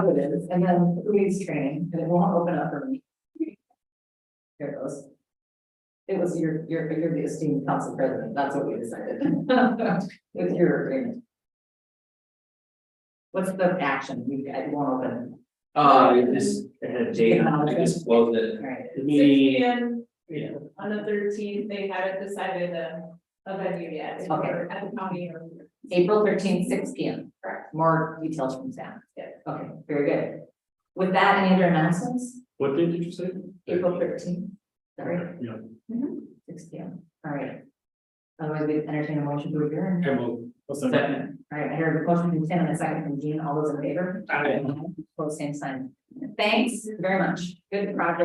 who it is, and then who needs training, and it won't open up for me. Here it goes. It was your, your, you're the esteemed council president, that's what we decided, with your agreement. What's the action, we, it won't open, Uh, this, uh, date, I just all closed it, right, the Six meeting. P M Yeah. on the thirteenth, they haven't decided a, a venue yet, Okay. or at the county or. April 13th, 6 P M. Correct. More details from Sam. Yeah. Okay, very good. With that, any other announcements? What date did you say? April 13th. sorry, Yeah, six P M, all right. Otherwise, we entertain a motion to adjourn. I will. Second. All right, I heard a motion from Tim and a second from Jean, all those in favor? Aye. Close, same sign. Thanks very much, good project.